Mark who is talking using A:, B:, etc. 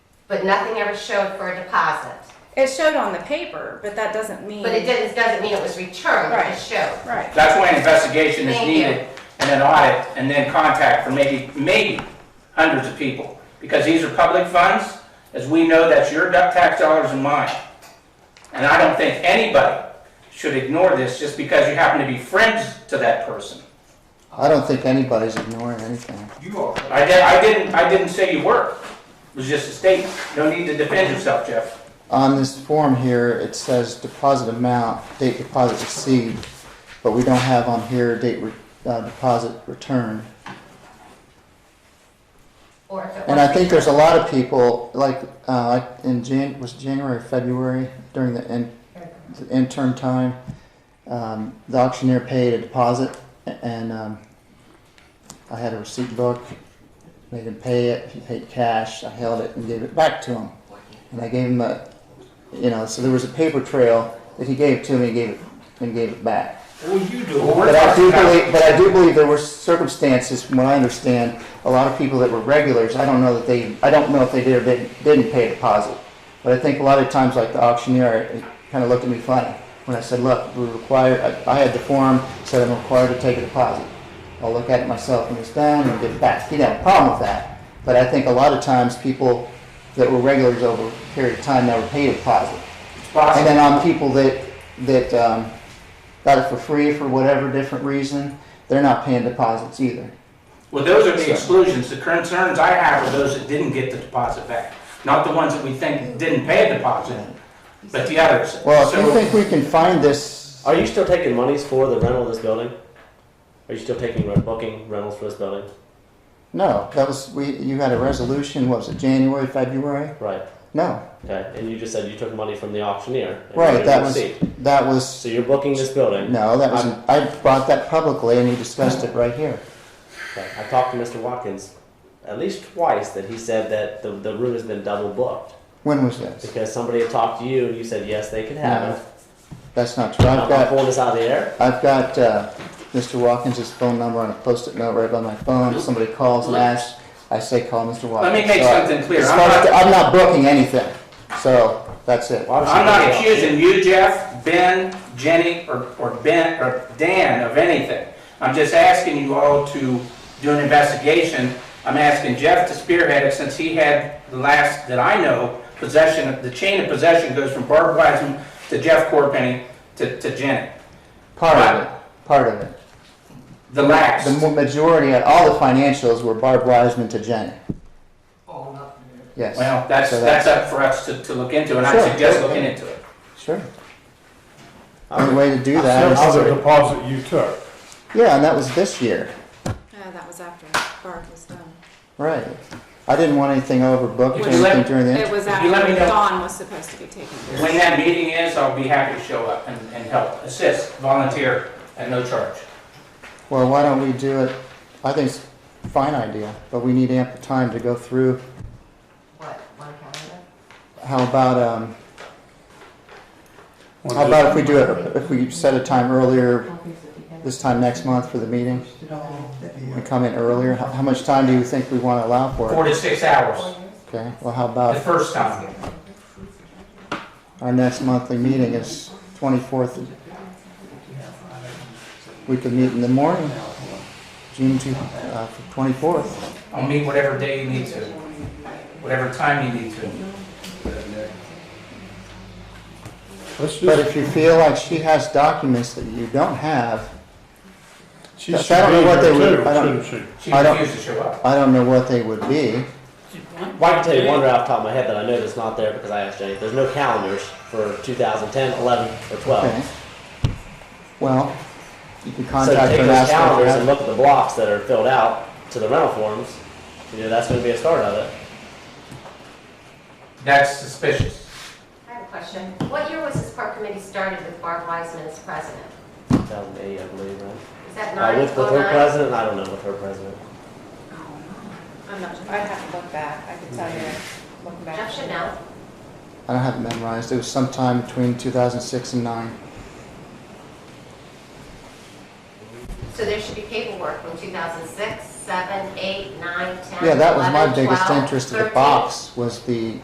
A: but nothing ever showed for a deposit.
B: It showed on the paper, but that doesn't mean.
A: But it doesn't, doesn't mean it was returned, it just showed.
B: Right.
C: That's why an investigation is
A: Thank you.
C: needed, and an audit, and then contact for maybe, maybe hundreds of people. Because these are public funds, as we know, that's your du- tax dollars and mine. And I don't think anybody should ignore this just because you happen to be friends to that person.
D: I don't think anybody's ignoring anything.
E: You are.
C: I did, I didn't, I didn't say you were, it was just a statement. No need to defend yourself, Jeff.
D: On this form here, it says deposit amount, date deposit received, but we don't have on here date re- uh, deposit return.
A: Or if it
D: And I
A: was,
D: think there's a lot of people, like, uh, like in Jan, was January, February, during the in, the intern time, um, the auctioneer paid a deposit a- and, um, I had a receipt book. They didn't pay it, he paid cash, I held it and gave it back to him. And I gave him a, you know, so there was a paper trail that he gave to me, and gave it, and gave it back.
E: Well, you do.
C: Well, we're
D: But I do
C: talking about-
D: believe, but I do believe there were circumstances, from what I understand, a lot of people that were regulars, I don't know that they, I don't know if they did or didn't, didn't pay a deposit. But I think a lot of times, like the auctioneer, it kind of looked at me funny when I said, look, we're required, I, I had the form, said I'm required to take a deposit. I'll look at it myself when it's done and give it back. He didn't have a problem with that. But I think a lot of times, people that were regulars over a period of time never paid a deposit.
C: It's
D: And
C: possible.
D: then on people that, that um, got it for free for whatever different reason, they're not paying deposits either.
C: Well, those are the exclusions. The concerns I have are those that didn't get the deposit back, not the ones that we think didn't pay a deposit, but the others.
D: Well, if you
C: So-
D: think we can find this, uh,
F: Are you still taking monies for the rental of this building? Are you still taking rent, booking rentals for this building?
D: no, that was, we, you had a resolution, what was it, January, February?
F: Right.
D: No,
F: Okay. And you just said you took money from the auctioneer. and you
D: right,
F: didn't
D: that was,
F: receipt.
D: that
F: So
D: was,
F: you're booking this building.
D: no, that was, I brought that publicly and he discussed it right here.
F: Okay. I talked to Mr. Watkins at least twice that he said that the, the room has been double booked
D: When was this?
F: because somebody had talked to you and you said yes they could have it.
D: That's not true. I've
F: I'm not
D: got,
F: pulling this out of the air.
D: I've got uh, Mr. Watkins' phone number on a post-it note right by my phone. If somebody calls and asks, I say, call Mr.
C: Let
D: Watkins.
C: me make
D: So I-
C: something clear.
D: As
C: I'm
D: far
C: not-
D: as the- I'm not booking anything, so that's it.
F: Why would she
C: I'm
F: do
C: not
F: that?
C: accusing you, Jeff, Ben, Jenny, or, or Ben, or Dan of anything. I'm just asking you all to do an investigation. I'm asking Jeff to spearhead it since he had the last, that I know, possession, the chain of possession goes from Barb Wiseman to Jeff Corpenny to, to Jenny.
D: Part of it, part of it.
C: The last.
D: The mo- majority, of all the financials were Barb Wiseman to Jenny,
E: Oh, nothing.
D: yes.
C: Well, that's,
D: So
C: that's up for us to, to look into and I
D: Sure.
C: suggest looking into it.
D: Sure. Only way to do that
G: That's
D: is,
G: the deposit you took.
D: yeah, and that was this year,
B: No, Oh, that was after Barb was done.
D: right. I didn't want anything overbooked or
B: Would you
D: anything
C: let-
D: during the,
B: It
D: inter-
B: was
C: If you let
B: after
C: me know-
B: Dawn was supposed to be taken care
C: When that meeting is, I'll be happy to show up and, and help, assist, volunteer at no charge.
D: well, why don't we do it? I think it's a fine idea, but we need ample time to go through
A: what, one calendar?
D: How about, um, how about if we do it, if we set a time earlier, this time next month for the meeting? We come in earlier, how, how much time do you think we wanna allow for
C: Four
D: it?
C: to six hours,
D: Okay, well, how
C: the
D: about,
C: first time.
D: our next monthly meeting is twenty-fourth. We could meet in the morning, June two, uh, twenty-fourth.
C: I'll meet whatever day you need to, whatever time you need to.
G: Let's
D: But
G: just,
D: if you feel like she has documents that you don't have,
G: she
D: I
G: should be
D: don't know what they
G: here
D: would-
G: too,
D: I don't-
G: shouldn't she?
C: She
D: I don't-
C: refused to show up.
D: I don't know what they would be.
F: Well, I can tell you one right off the top of my head that I know that's not there because I asked Jenny. There's no calendars for 2010, 11, or 12.
D: Okay. Well, you can
F: So
D: contact
F: take
D: her and
F: those
D: ask her.
F: calendars and
D: if
F: look at the blocks that are filled out to the rental forms. You know, that's gonna be a start of it.
C: That's suspicious.
A: I have a question. What year was this park committee started with Barb Wiseman as president?
F: Two thousand eight, I believe, right?
A: Is that
F: Uh,
A: nine,
F: with, with
A: oh
F: her
A: nine?
F: president, I don't know with her president.
B: of. I'm not, I'd have to look back. I could tell you, looking back.
A: Jeff should know.
D: I don't have it memorized. It was sometime between 2006 and 9.
A: So there should be paperwork from 2006, 7, 8, 9, 10,
D: Yeah, that was my
A: 11,
D: biggest
A: 12,
D: interest of the
A: 13.
D: box was the